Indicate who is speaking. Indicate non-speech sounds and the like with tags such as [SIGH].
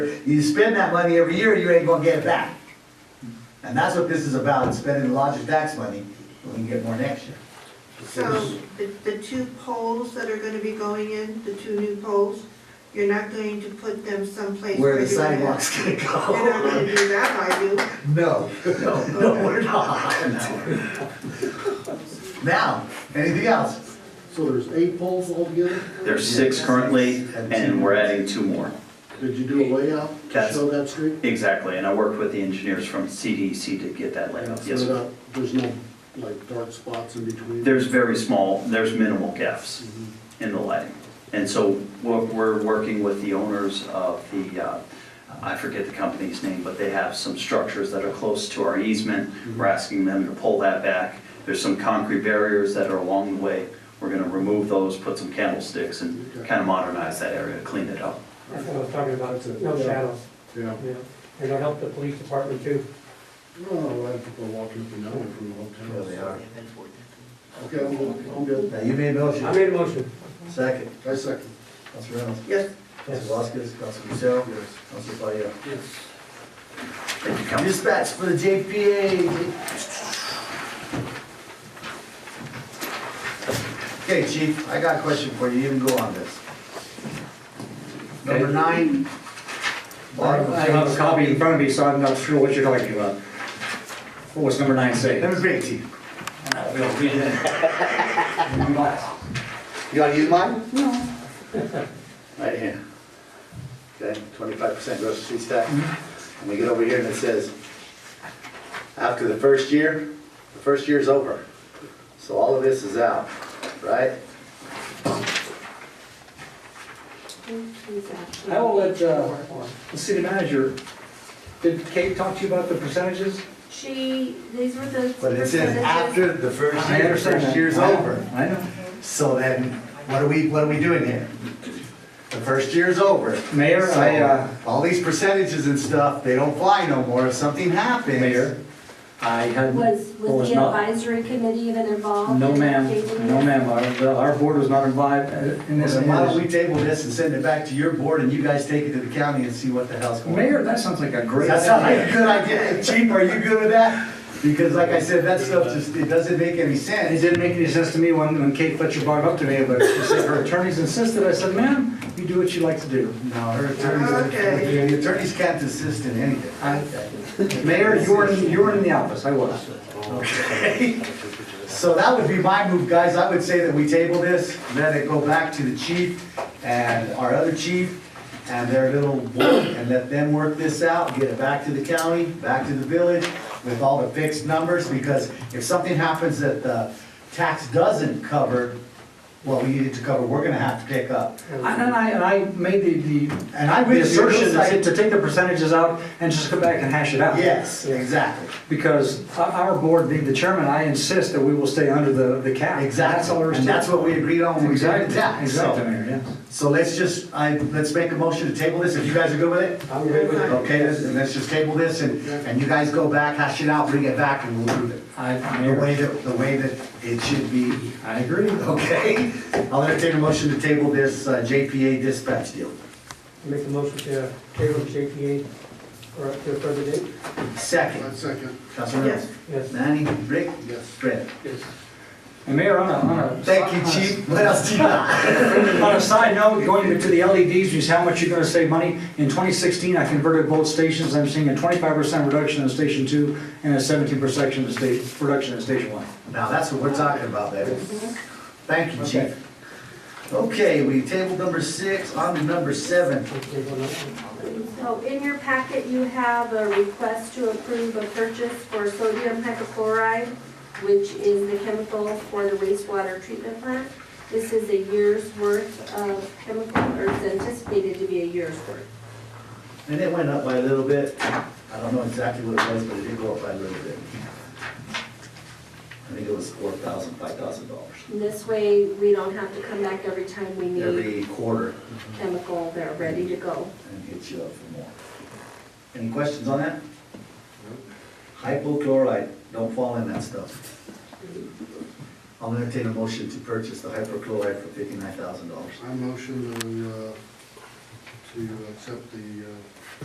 Speaker 1: You spend that money every year, you ain't gonna get it back. And that's what this is about, spending the lodger's tax money, we can get more next year.
Speaker 2: So the, the two poles that are gonna be going in, the two new poles, you're not going to put them someplace
Speaker 1: Where
Speaker 2: where
Speaker 1: are the
Speaker 2: you're gonna have-
Speaker 1: sidewalks gonna
Speaker 2: You're not gonna
Speaker 1: go? [LAUGHS]
Speaker 2: do that, are you?
Speaker 1: No, no, no, we're not. Now, anything else?
Speaker 3: So there's eight poles altogether?
Speaker 4: There's six currently, and we're adding two more.
Speaker 3: Did you do a layout to
Speaker 4: That's-
Speaker 3: show that street?
Speaker 4: Exactly, and I worked with the engineers from CDC to get that laid out.
Speaker 3: So
Speaker 4: Yes,
Speaker 3: that There's no, like, dark spots in between?
Speaker 4: there's very small, there's minimal gaps
Speaker 3: Mhm.
Speaker 4: in the lighting. And so we're, we're working with the owners of the, uh, I forget the company's name, but they have some structures that are close to our easement. We're asking them to pull that back. There's some concrete barriers that are along the way. We're gonna remove those, put some candlesticks, and
Speaker 3: Okay.
Speaker 4: kind of modernize that area, clean it up.
Speaker 5: That's what I was talking about, no shadows,
Speaker 3: Yeah.
Speaker 5: you know, and it'll help the police department too.
Speaker 3: No, I have people walking up and down from the
Speaker 1: There
Speaker 3: hotel.
Speaker 1: they are.
Speaker 3: Okay, I'm good, I'm good.
Speaker 1: Now, you made a
Speaker 5: I
Speaker 1: motion.
Speaker 5: made a motion.
Speaker 1: Second,
Speaker 3: I second.
Speaker 1: Council Reynolds,
Speaker 2: Yes,
Speaker 1: Council Voskis, Council Michelle, Council Fire.
Speaker 4: Thank you, Council.
Speaker 1: Dispatch for the JPA. Okay, chief, I got a question for you, you can go on this. Number
Speaker 6: Okay.
Speaker 1: nine. bottom of
Speaker 6: I have a
Speaker 1: page.
Speaker 6: copy in front of me, so I'm not sure what you're talking about. What was number nine say?
Speaker 1: Let me bring it to you.
Speaker 6: You wanna use mine? No. [LAUGHS] Right here. Okay, twenty-five percent gross receipts tax.
Speaker 1: Mm-hmm.
Speaker 6: And we get over here and it says, after the first year, the first year's over. So all of this is out, right? I will let, uh, the city manager, did Kate talk to you about the percentages?
Speaker 7: She, these were the
Speaker 1: But it says
Speaker 7: percentages.
Speaker 1: after the first
Speaker 6: I
Speaker 1: year,
Speaker 6: understand
Speaker 1: first
Speaker 6: that.
Speaker 1: year's
Speaker 6: I-
Speaker 1: over.
Speaker 6: I know.
Speaker 1: So then, what are we, what are we doing here? The first year's over.
Speaker 6: Mayor,
Speaker 1: So,
Speaker 6: I, uh,
Speaker 1: All these percentages and stuff, they don't fly no more, if something happens.
Speaker 6: Mayor, I had.
Speaker 7: Was, was
Speaker 6: was
Speaker 7: the
Speaker 6: Oh, not-
Speaker 7: advisory committee even involved?
Speaker 6: No
Speaker 7: in
Speaker 6: ma'am,
Speaker 7: updating
Speaker 6: no
Speaker 7: it?
Speaker 6: ma'am, our, the- our board was not involved in
Speaker 1: Well,
Speaker 6: this.
Speaker 1: then Why don't we table this and send it back to your board and you guys take it to the county and see what the hell's going on?
Speaker 6: Mayor, that sounds like a great.
Speaker 1: That sounds like a
Speaker 6: idea.
Speaker 1: good idea. Chief, are you good with that? Because like I said, that stuff just, it doesn't make any
Speaker 6: And it
Speaker 1: sense.
Speaker 6: didn't make any sense to me when, when Kate Fletcher brought it up to me, but she said her attorneys insisted, I said, ma'am, you do what you like to do.
Speaker 1: No, her attorneys,
Speaker 2: Okay.
Speaker 1: the attorneys can't assist in anything.
Speaker 6: I- Mayor, you were, in- you were in the office, I was.
Speaker 1: So that would be my move, guys. I would say that we table this, let it go back to the chief and our other chief and their little board and let them work this out, get it back to the county, back to the village with all the fixed numbers, because if something happens that the tax doesn't cover what we needed to cover, we're gonna have to pick up.
Speaker 6: And I, and I made the, the.
Speaker 1: And I'm with
Speaker 6: The
Speaker 1: you,
Speaker 6: assertion
Speaker 1: it's like-
Speaker 6: to to take the percentages out and just come back and hash it out.
Speaker 1: Yes, exactly.
Speaker 6: Because our- our board, being the chairman, I insist that we will stay under the, the cap. That's all
Speaker 1: Exactly.
Speaker 6: there is
Speaker 1: And
Speaker 6: to it.
Speaker 1: that's what we agreed on when we did the
Speaker 6: Exactly,
Speaker 1: tax,
Speaker 6: exactly,
Speaker 1: so.
Speaker 6: Mayor, yes.
Speaker 1: So let's just, I, let's make a motion to table this, if you guys are good with it?
Speaker 5: I'm good with it.
Speaker 1: Okay, let's- and let's just table this, and, and you guys go back, hash it out, bring it back, and we'll do it.
Speaker 6: I,
Speaker 1: The
Speaker 6: Mayor,
Speaker 1: way that, the way that it should be,
Speaker 6: I
Speaker 1: [LAUGHS]
Speaker 6: agree.
Speaker 1: okay? I'll entertain a motion to table this uh, JPA dispatch deal.
Speaker 5: Make a motion to table the JPA for up to a further date.
Speaker 3: I
Speaker 1: Second,
Speaker 3: second,
Speaker 1: Councilor Reynolds.
Speaker 5: Yes.
Speaker 1: Manny, Rick,
Speaker 3: yes.
Speaker 1: Brett.
Speaker 5: Yes.
Speaker 6: And Mayor, on a, on a.
Speaker 1: Thank you, chief. What else do you got? [LAUGHS]
Speaker 6: On a side note, going to the LEDs, is how much you're gonna save money. In 2016, I converted both stations, I'm seeing a 25% reduction in Station 2 and a 17% in sta- reduction in Station 1.
Speaker 1: Now, that's what we're talking about, baby. Thank you, chief. Okay, we tabled number six, on to number seven.
Speaker 7: So in your packet, you have a request to approve a purchase for sodium hypochlorite, which is the chemical for the wastewater treatment plant. This is a year's worth of chemical, or is anticipated to be a year's worth.
Speaker 1: And it went up by a little bit. I don't know exactly what it was, but it did go up by a little bit. I think it was four thousand, five thousand dollars
Speaker 7: And This way, we don't have to come back every time we need
Speaker 1: every quarter
Speaker 7: chemical, they're ready to go.
Speaker 1: and hit you up for more. Any questions on that? Hypochlorite, don't fall in that stuff. I'll entertain a motion to purchase the hypochlorite for fifty-nine thousand dollars.
Speaker 3: I motion to, uh, to accept the uh,